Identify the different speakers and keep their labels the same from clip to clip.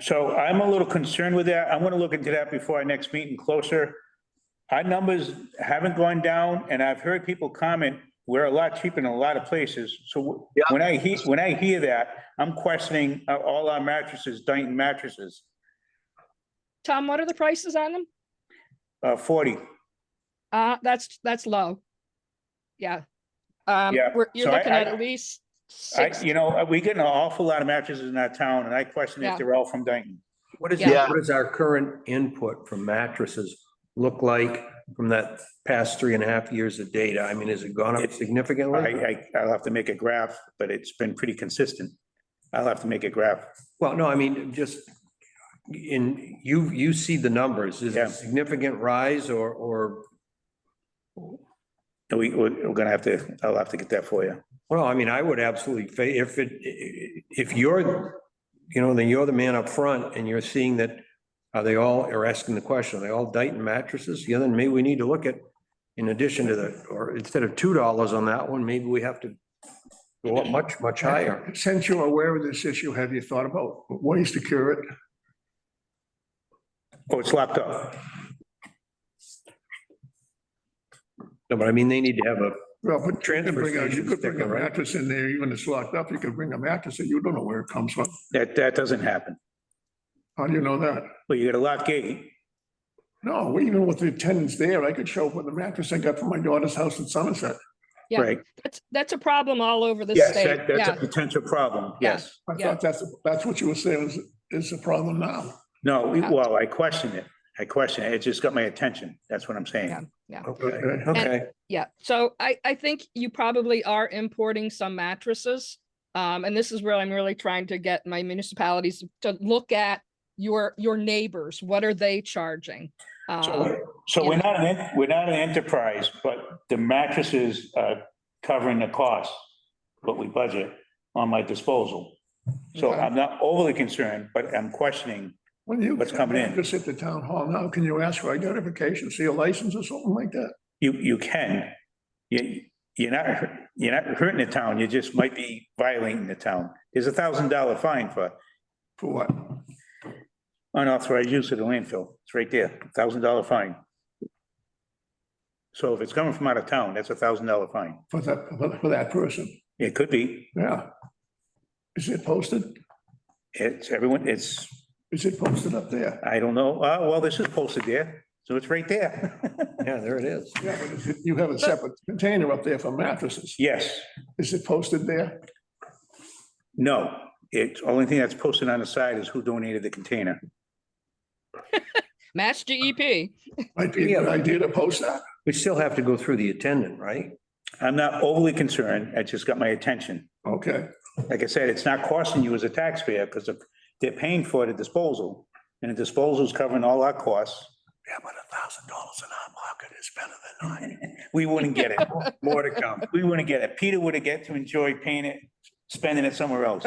Speaker 1: So I'm a little concerned with that. I'm gonna look into that before our next meeting closer. Our numbers haven't gone down and I've heard people comment, we're a lot cheaper in a lot of places. So
Speaker 2: Yeah.
Speaker 1: when I hear, when I hear that, I'm questioning uh, all our mattresses, Dyson mattresses,
Speaker 3: Tom, what are the prices on them?
Speaker 1: uh, forty.
Speaker 3: Uh, that's, that's low. Yeah. Um,
Speaker 1: Yeah,
Speaker 3: we're- you're
Speaker 1: so I-
Speaker 3: looking
Speaker 1: I-
Speaker 3: at at least
Speaker 1: I,
Speaker 3: six,
Speaker 1: you know, we get an awful lot of mattresses in our town and I question
Speaker 3: Yeah.
Speaker 1: if they're all from Dyson.
Speaker 4: What is,
Speaker 3: Yeah.
Speaker 4: what is our current input from mattresses look like from that past three and a half years of data? I mean, has it gone up
Speaker 1: I,
Speaker 4: significantly?
Speaker 1: I, I'll have to make a graph, but it's been pretty consistent. I'll have to make a graph.
Speaker 4: Well, no, I mean, just in, you, you see the numbers. Is it
Speaker 1: Yeah.
Speaker 4: a significant rise or, or,
Speaker 1: We, we're we're gonna have to, I'll have to get that for you.
Speaker 4: well, I mean, I would absolutely, fa- if it, if you're, you know, then you're the man up front and you're seeing that, are they all, or asking the question, are they all Dyson mattresses? Yeah, then maybe we need to look at, in addition to the, or instead of two dollars on that one, maybe we have to go up much, much higher.
Speaker 5: Since you're aware of this issue, have you thought about ways to cure it?
Speaker 1: Oh, it's locked up.
Speaker 4: No, but I mean, they need to have a,
Speaker 5: Well, but you can
Speaker 4: Transfer
Speaker 5: bring a- you
Speaker 4: station
Speaker 5: could bring a
Speaker 4: sticker, right?
Speaker 5: mattress in there, even if it's locked up, you could bring a mattress in, you don't know where it comes from.
Speaker 1: That, that doesn't happen.
Speaker 5: How do you know that?
Speaker 1: Well, you got a locked gate.
Speaker 5: No, we even with the tenants there, I could show up with a mattress I got from my daughter's house in Somerset.
Speaker 3: Yeah.
Speaker 1: Right.
Speaker 3: that's, that's a problem all over the
Speaker 1: Yes,
Speaker 3: state.
Speaker 1: that- that's a
Speaker 3: Yeah,
Speaker 1: potential problem.
Speaker 3: Yeah.
Speaker 1: Yes.
Speaker 5: I
Speaker 3: Yeah.
Speaker 5: thought that's, that's what you were saying is, is the problem now.
Speaker 1: No, we- well, I question it. I question it. It just got my attention. That's what I'm
Speaker 3: Yeah.
Speaker 1: saying.
Speaker 4: okay,
Speaker 5: Okay.
Speaker 4: okay.
Speaker 3: yeah. So I, I think you probably are importing some mattresses. Um, and this is where I'm really trying to get my municipalities to look at your, your neighbors. What are they charging? Uh,
Speaker 1: So, so we're not, an en- we're not an enterprise, but the mattresses are covering the cost, what we budget on my disposal. So
Speaker 3: Okay.
Speaker 1: I'm not overly concerned, but I'm questioning.
Speaker 5: When you.
Speaker 1: What's coming in?
Speaker 5: Just at the town hall now, can you ask for identification, see a license or something like that?
Speaker 1: You, you can. You, you're not, hurt- you're not hurting the town. You just might be violating the town. There's a thousand dollar fine for
Speaker 5: For what?
Speaker 1: unauthorized use of the landfill. It's right there, thousand dollar fine. So if it's coming from out of town, that's a thousand dollar fine.
Speaker 5: For that, for- for that person,
Speaker 1: It could be,
Speaker 5: yeah. Is it posted?
Speaker 1: it's everyone, it's,
Speaker 5: Is it posted up there?
Speaker 1: I don't know, uh, well, this is posted there, so it's right there.
Speaker 4: Yeah, there it is.
Speaker 5: Yeah, but is it- you have a separate container up there for mattresses.
Speaker 1: Yes,
Speaker 5: Is it posted there?
Speaker 1: no, it's, only thing that's posted on the side is who donated the container.
Speaker 3: Match GEP.
Speaker 5: Might be a good idea to post that.
Speaker 4: We still have to go through the attendant, right?
Speaker 1: I'm not overly concerned, it just got my attention.
Speaker 5: Okay,
Speaker 1: Like I said, it's not costing you as a taxpayer, because they're paying for the disposal, and the disposal's covering all our costs.
Speaker 4: Yeah, but a thousand dollars in our pocket is better than nine.
Speaker 1: We wouldn't get it.
Speaker 4: More to come.
Speaker 1: we wouldn't get it. Peter would have get to enjoy paying it, spending it somewhere else.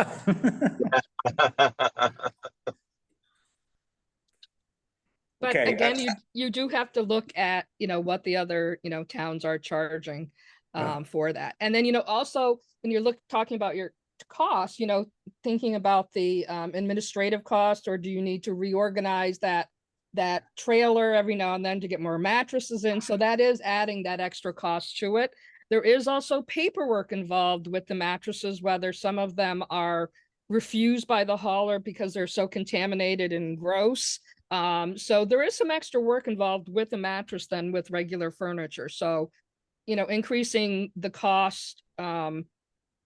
Speaker 3: But
Speaker 1: Okay,
Speaker 3: again,
Speaker 1: that's-
Speaker 3: you, you do have to look at, you know, what the other, you know, towns are charging
Speaker 5: Yeah.
Speaker 3: um, for that. And then, you know, also when you're look, talking about your costs, you know, thinking about the um, administrative cost, or do you need to reorganize that, that trailer every now and then to get more mattresses in? So that is adding that extra cost to it. There is also paperwork involved with the mattresses, whether some of them are refused by the hauler because they're so contaminated and gross. Um, so there is some extra work involved with the mattress than with regular furniture. So, you know, increasing the cost, um,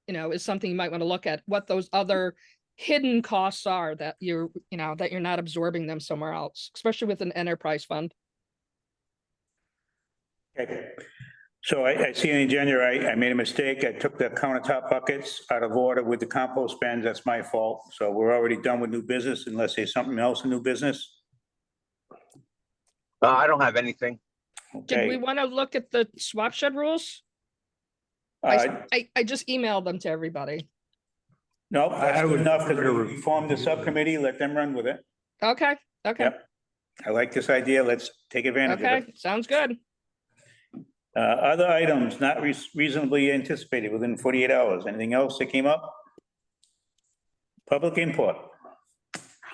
Speaker 3: you know, is something you might want to look at, what those other hidden costs are that you're, you know, that you're not absorbing them somewhere else, especially with an enterprise fund.
Speaker 1: Okay. So I, I see in the agenda, I, I made a mistake. I took the countertop buckets out of order with the compost bins. That's my fault. So we're already done with new business unless there's something else in new business.
Speaker 2: Uh, I don't have anything.
Speaker 3: Did we
Speaker 1: Okay.
Speaker 3: want to look at the swap shed rules? I,
Speaker 1: Uh,
Speaker 3: s- I, I just emailed them to everybody.
Speaker 1: no,
Speaker 4: I- I
Speaker 1: that's good
Speaker 4: would
Speaker 1: enough that
Speaker 4: prefer to
Speaker 1: we formed the subcommittee, let them run with it.
Speaker 3: Okay, okay,
Speaker 1: Yep. I like this idea. Let's take advantage of it.
Speaker 3: okay, sounds good.
Speaker 1: Uh, other items not reas- reasonably anticipated within forty-eight hours. Anything else that came up? Public input.